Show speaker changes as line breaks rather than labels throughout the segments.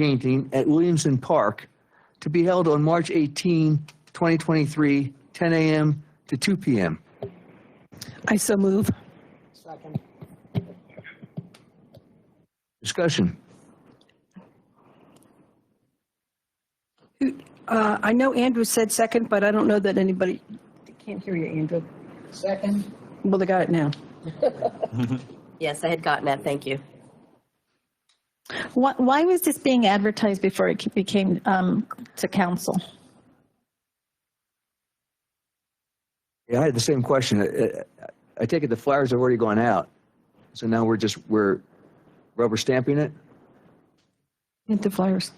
painting at Williamson Park to be held on March 18, 2023, 10 a.m. to 2 p.m.
I so move.
Second.
Discussion.
Uh, I know Andrew said second, but I don't know that anybody, can't hear you, Andrew.
Second?
Well, they got it now.
Yes, I had gotten that, thank you.
Why, why was this being advertised before it ke- became um, to council?
Yeah, I had the same question. I- I- I take it the flyers have already gone out, so now we're just, we're rubber stamping it?
Didn't the flyers,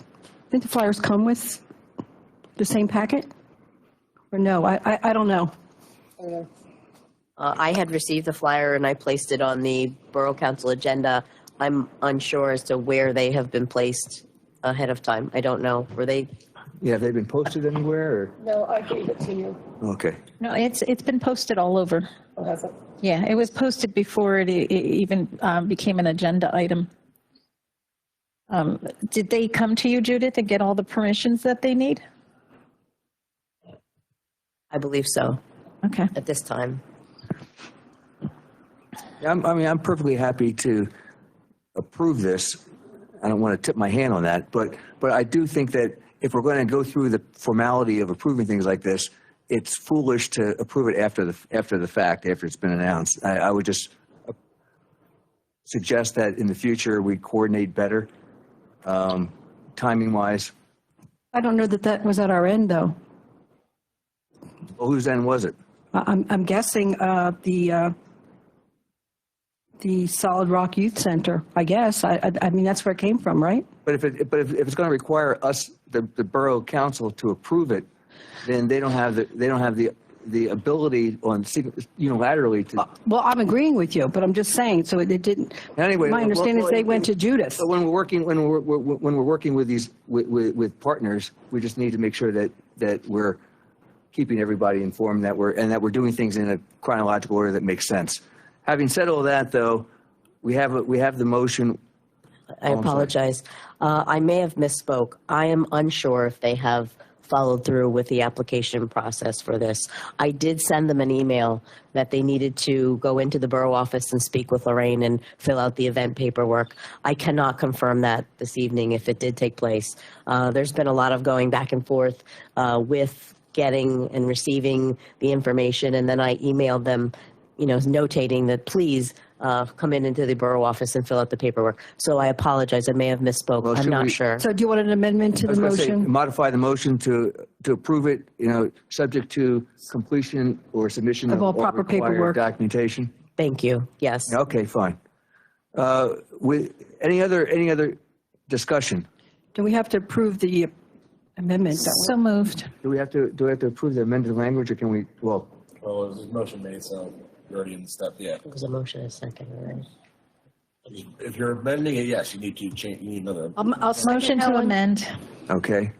didn't the flyers come with the same packet? Or no, I, I, I don't know.
Uh, I had received the flyer and I placed it on the Borough Council agenda. I'm unsure as to where they have been placed ahead of time. I don't know. Were they,
Yeah, have they been posted anywhere
No, I gave it to you.
or? Okay.
No, it's, it's been posted all over.
Oh, has it?
Yeah, it was posted before it e- e- even uh, became an agenda item. Um, Did they come to you, Judith, and get all the permissions that they need?
I believe so,
Okay.
at this time.
Yeah, I'm, I mean, I'm perfectly happy to approve this. I don't want to tip my hand on that, but, but I do think that if we're going to go through the formality of approving things like this, it's foolish to approve it after the, after the fact, after it's been announced. I, I would just uh, suggest that in the future, we coordinate better, um, timing wise.
I don't know that that was at our end, though.
Well, whose end was it?
I- I'm, I'm guessing uh, the, uh, the Solid Rock Youth Center, I guess. I, I- I mean, that's where it came from, right?
But if it, but if, if it's going to require us, the, the borough council to approve it, then they don't have the, they don't have the, the ability on, sig- unilaterally to.
Well, I'm agreeing with you, but I'm just saying, so it it didn't.
Anyway,
My
well,
understanding is
well,
they went to Judith.
But when we're working, when we're, we're- when we're working with these, with, with, with partners, we just need to make sure that, that we're keeping everybody informed, that we're, and that we're doing things in a chronological order that makes sense. Having said all that, though, we have, a- we have the motion,
I apologize. Uh, I may have misspoke. I am unsure if they have followed through with the application process for this. I did send them an email that they needed to go into the borough office and speak with Lorraine and fill out the event paperwork. I cannot confirm that this evening if it did take place. Uh, There's been a lot of going back and forth uh, with getting and receiving the information, and then I emailed them you know, notating that please uh, come in into the borough office and fill out the paperwork. So I apologize, I may have
Well,
misspoke, I'm
should
not
we-
sure.
So do you want an amendment to
I
the
was gonna say, um,
motion?
modify the motion to, to approve it, you know, subject to completion or submission
Of
of
all
all
proper
required
paperwork.
documentation.
Thank you, yes.
Okay, fine. Uh, With, any other, any other discussion?
Do we have to approve the amendment? though?
So moved.
Do we have to, do we have to approve the amended language, or can we, well,
Well, it was a motion made, so you're already in step, yeah.
It was a motion, a second, right?
If you're amending it, yes, you need to change, you need another.
Um, I'll second
Motion
that
to
one.
amend.
okay,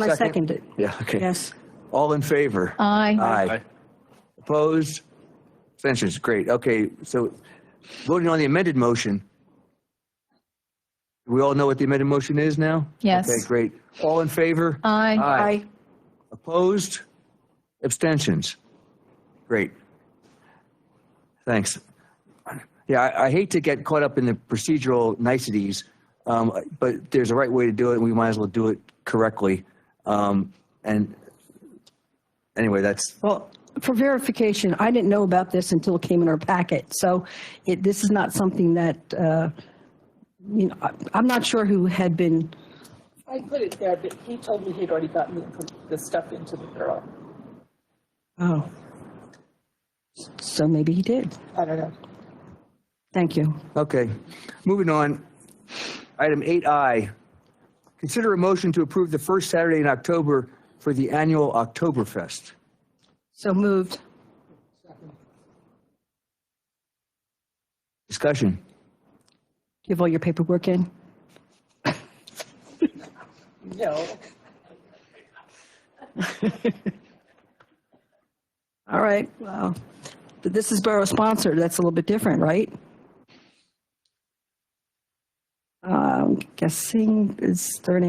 I second it,
yeah, okay.
yes. Uh,
All in favor?
Aye.
Aye. Opposed? Abstentions, great, okay, so voting on the amended motion. We all know what the amended motion is now?
Yes. Uh.
Okay, great. All in favor?
Aye.
Aye. Opposed? Abstentions? Great. Thanks. Yeah, I, I hate to get caught up in the procedural niceties, um, but there's a right way to do it, and we might as well do it correctly. Um, and anyway, that's,
Well, for verification, I didn't know about this until it came in our packet, so it, this is not something that, uh, you know, I- I'm not sure who had been,
I put it there, but he told me he'd already gotten the- the stuff into the girl.
oh. So maybe he did.
I don't know.
Thank you.
okay. Moving on. Item 8I. Consider a motion to approve the first Saturday in October for the annual Oktoberfest.
So moved.
Discussion.
You have all your paperwork in?
No,
All right, well, but this is borough sponsored, that's a little bit different, right? Um, guessing is there an